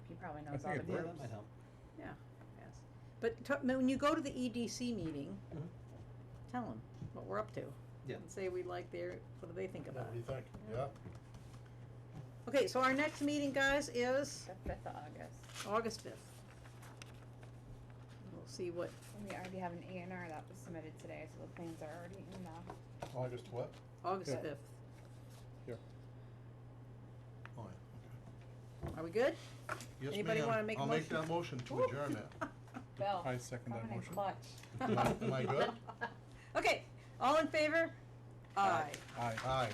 probably I knows all think the it works. groups. might help. Yeah, yes. But t- when you go to the EDC meeting, Mm-hmm. Mhm. tell them what we're up to. Yeah. And say we like their, what do they think Yeah, about what do you think? it? Yeah? Okay, so our next meeting, guys, is The fifth of August. August fifth. We'll see what, And we already have an A and R that was submitted today, so the plans are already in the. August what? August Okay. fifth. Oh, Are we good? yeah, okay. Yes, Anybody ma'am. wanna make a I'll make motion? that motion to Woo. adjourn that. Bill. I second that coming in motion. clutch. Am I- am I good? Okay, all in favor? Aye. Aye. Aye.